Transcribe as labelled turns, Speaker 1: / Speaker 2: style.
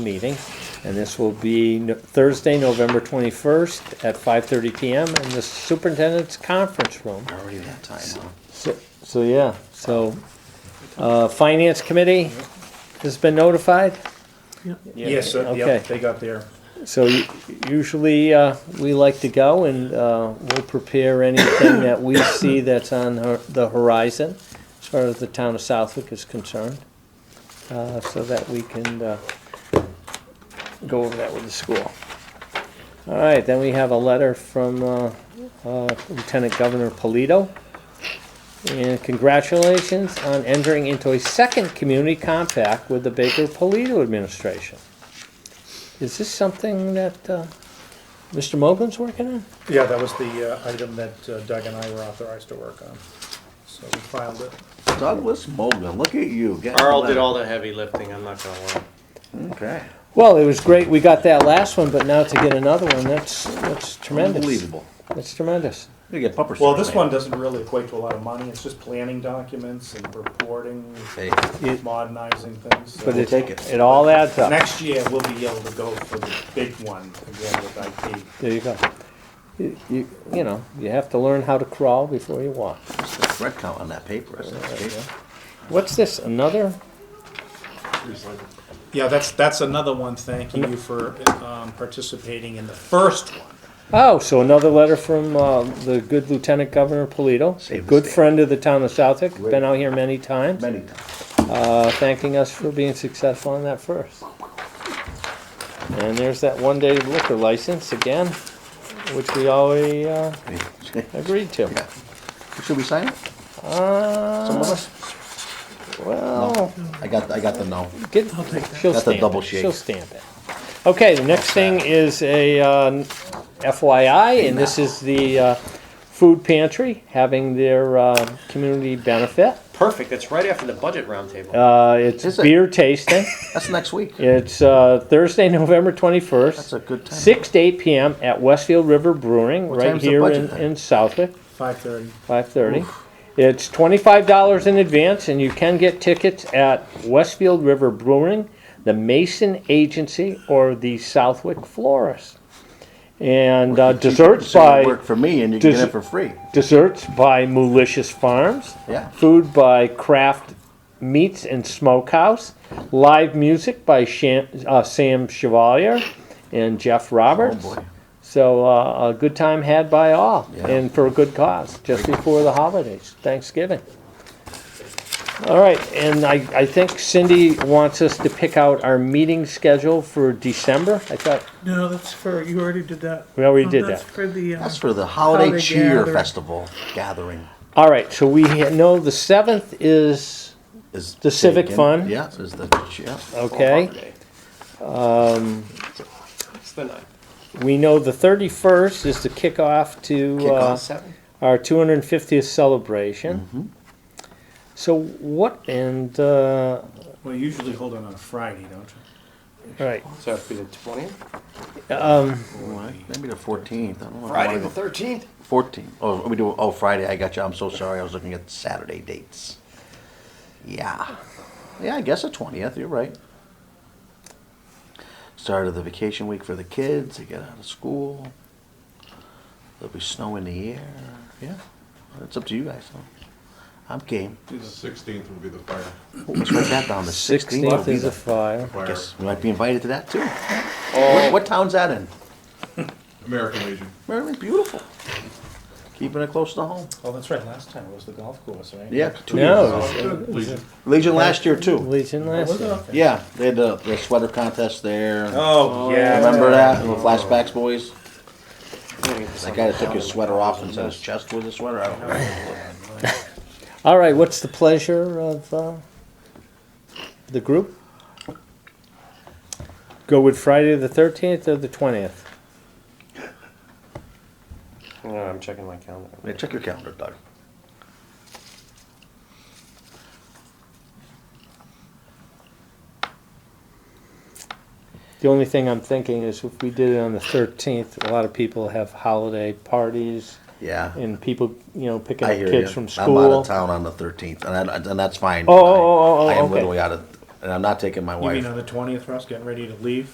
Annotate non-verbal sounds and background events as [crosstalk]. Speaker 1: meeting, and this will be No- Thursday, November 21st at 5:30 PM in the superintendent's conference room.
Speaker 2: Already that time, huh?
Speaker 1: So, so yeah, so, uh, Finance Committee has been notified?
Speaker 3: Yes, uh,
Speaker 1: Okay.
Speaker 3: yep, they got there.
Speaker 1: So u- usually, uh, we like to go and, uh, we'll prepare anything that we see that's on hor- the horizon as far as the town of Southwick is concerned, uh, so that we can, uh, go over that with the school. All right, then we have a letter from, uh, uh, Lieutenant Governor Polito. And congratulations on entering into a second community compact with the Baker Polito administration. Is this something that uh, Mr. Mogen's working on?
Speaker 3: Yeah, that was the uh, item that uh, Doug and I were authorized to work on. So we filed it.
Speaker 2: Douglas Mogan, look at you. getting
Speaker 4: Carl did
Speaker 2: the-
Speaker 4: all the heavy lifting, I'm not gonna lie.
Speaker 2: Okay.
Speaker 1: Well, it was great, we got that last one, but now to get another one, that's, that's tremendous.
Speaker 2: Unbelievable.
Speaker 1: That's tremendous.
Speaker 2: You get bumper
Speaker 3: Well,
Speaker 2: stickers
Speaker 3: this
Speaker 2: made.
Speaker 3: one doesn't really equate to a lot of money. It's just planning documents and reporting,
Speaker 2: Hey,
Speaker 3: modernizing things. so-
Speaker 1: But it,
Speaker 2: take it.
Speaker 1: it all adds up.
Speaker 3: Next year, we'll be able to go for the big one again with IT.
Speaker 1: There you go. You, you you know, you have to learn how to crawl before you walk.
Speaker 2: what's the thread count on that paper? Is that paper?
Speaker 1: What's this, another?
Speaker 3: Yeah, that's, that's another one. Thank you for um, participating in the first one.
Speaker 1: Oh, so another letter from uh, the good Lieutenant Governor Polito, a
Speaker 2: Save the
Speaker 1: good
Speaker 2: state.
Speaker 1: friend of the town of Southwick, been out here many times,
Speaker 2: Many times. [laughs]
Speaker 1: uh, thanking us for being successful on that first. And there's that one-day liquor license again, which we already uh, agreed to.
Speaker 2: Yeah. Should we sign it? Some of
Speaker 1: Uh,
Speaker 2: us?
Speaker 1: well,
Speaker 2: I got, I got the no.
Speaker 1: get, she'll
Speaker 2: That's a
Speaker 1: stamp
Speaker 2: double
Speaker 1: it,
Speaker 2: shake.
Speaker 1: she'll stamp it. Okay, the next thing is a uh, FYI, and this is the uh, food pantry having their uh, community benefit.
Speaker 4: Perfect, that's right after the budget roundtable.
Speaker 1: Uh, It's
Speaker 2: Is it?
Speaker 1: beer tasting.
Speaker 2: That's next week.
Speaker 1: It's uh, Thursday, [laughs] November 21st.
Speaker 2: That's a good time.
Speaker 1: 6 to 8 p.m. at Westfield River Brewing, right
Speaker 2: time's the
Speaker 1: here
Speaker 2: budget
Speaker 1: in,
Speaker 2: then?
Speaker 1: in Southwick,
Speaker 3: 5:30.
Speaker 1: 5:30. It's $25 in advance, and you can get tickets at Westfield River Brewing, the Mason Agency, or the Southwick Florist. And uh, desserts
Speaker 2: So you
Speaker 1: by
Speaker 2: Work for me and you can get
Speaker 1: Dessert-
Speaker 2: it for free.
Speaker 1: desserts by Malicious Farms.
Speaker 2: Yeah.
Speaker 1: Food by Kraft Meats and Smokehouse. Live music by Sham, uh, Sam Chevalier and Jeff
Speaker 2: Oh,
Speaker 1: Roberts.
Speaker 2: boy.
Speaker 1: so uh, a good time had by all,
Speaker 2: Yeah.
Speaker 1: and for a good cause, just before the holidays, Thanksgiving. All right, and I, I think Cindy wants us to pick out our meeting schedule for December. I thought
Speaker 5: No, that's for, you already did that.
Speaker 1: we already
Speaker 5: No,
Speaker 1: did
Speaker 5: That's
Speaker 1: that.
Speaker 5: for the, uh,
Speaker 2: That's for the Holiday
Speaker 5: Holiday
Speaker 2: Cheer
Speaker 5: gathering.
Speaker 2: Festival gathering.
Speaker 1: All right, so we ha- know the seventh is
Speaker 2: Is
Speaker 1: The civic
Speaker 2: taken.
Speaker 1: fun?
Speaker 2: Yeah, is the, yeah.
Speaker 1: okay.
Speaker 4: It's uh, the ninth.
Speaker 1: We know the 31st is the kickoff to uh,
Speaker 2: Kickoff.
Speaker 4: Seven.
Speaker 1: our 250th celebration.
Speaker 2: Mm-hmm.
Speaker 1: So what and uh,
Speaker 3: Well, you usually hold it on a Friday, don't you?
Speaker 1: all right?
Speaker 4: So it'd be the twentieth?
Speaker 2: Maybe the fourteenth. I don't know.
Speaker 4: Friday the thirteenth?
Speaker 2: Fourteenth. Oh, we do, oh, Friday, I got you. I'm so sorry. I was looking at Saturday dates. Yeah. Yeah, I guess the twentieth, you're right. Start of the vacation week for the kids, they get out of school. There'll be snow in the air. Yeah, it's up to you guys, though. I'm game.
Speaker 6: Sixteenth will be the fire.
Speaker 2: Let's write that down, the sixteenth.
Speaker 1: 16th is a fire.
Speaker 2: I
Speaker 6: Fire,
Speaker 2: guess we might be invited to that, too. What, what town's that in?
Speaker 6: American Legion.
Speaker 2: Maryland, beautiful. Keeping it close to home.
Speaker 3: Oh, that's right, last time it was the golf course, right?
Speaker 2: Yeah, two years.
Speaker 1: No,
Speaker 6: Legion.
Speaker 2: Legion last year, too.
Speaker 1: Legion last year.
Speaker 2: Yeah, they had the, the sweater contest there.
Speaker 3: Oh, yeah.
Speaker 2: Remember that? The flashbacks, boys? That guy that took his sweater off and said his chest was a sweater. I don't know.
Speaker 1: All right, what's the pleasure of uh, the group? Go with Friday the 13th or the 20th?
Speaker 4: I'm checking my calendar.
Speaker 2: Yeah, check your calendar, Doug.
Speaker 1: The only thing I'm thinking is if we did it on the 13th, a lot of people have holiday parties.
Speaker 2: Yeah.
Speaker 1: and people, you know, picking
Speaker 2: I
Speaker 1: up
Speaker 2: hear
Speaker 1: kids
Speaker 2: you.
Speaker 1: from
Speaker 2: I'm out
Speaker 1: school.
Speaker 2: of town on the 13th, and, I, and that's fine.
Speaker 1: Oh, oh, oh, oh,
Speaker 2: I am
Speaker 1: okay.
Speaker 2: literally out of and I'm not taking my
Speaker 3: You
Speaker 2: wife.
Speaker 3: mean on the twentieth, Russ, getting ready to leave?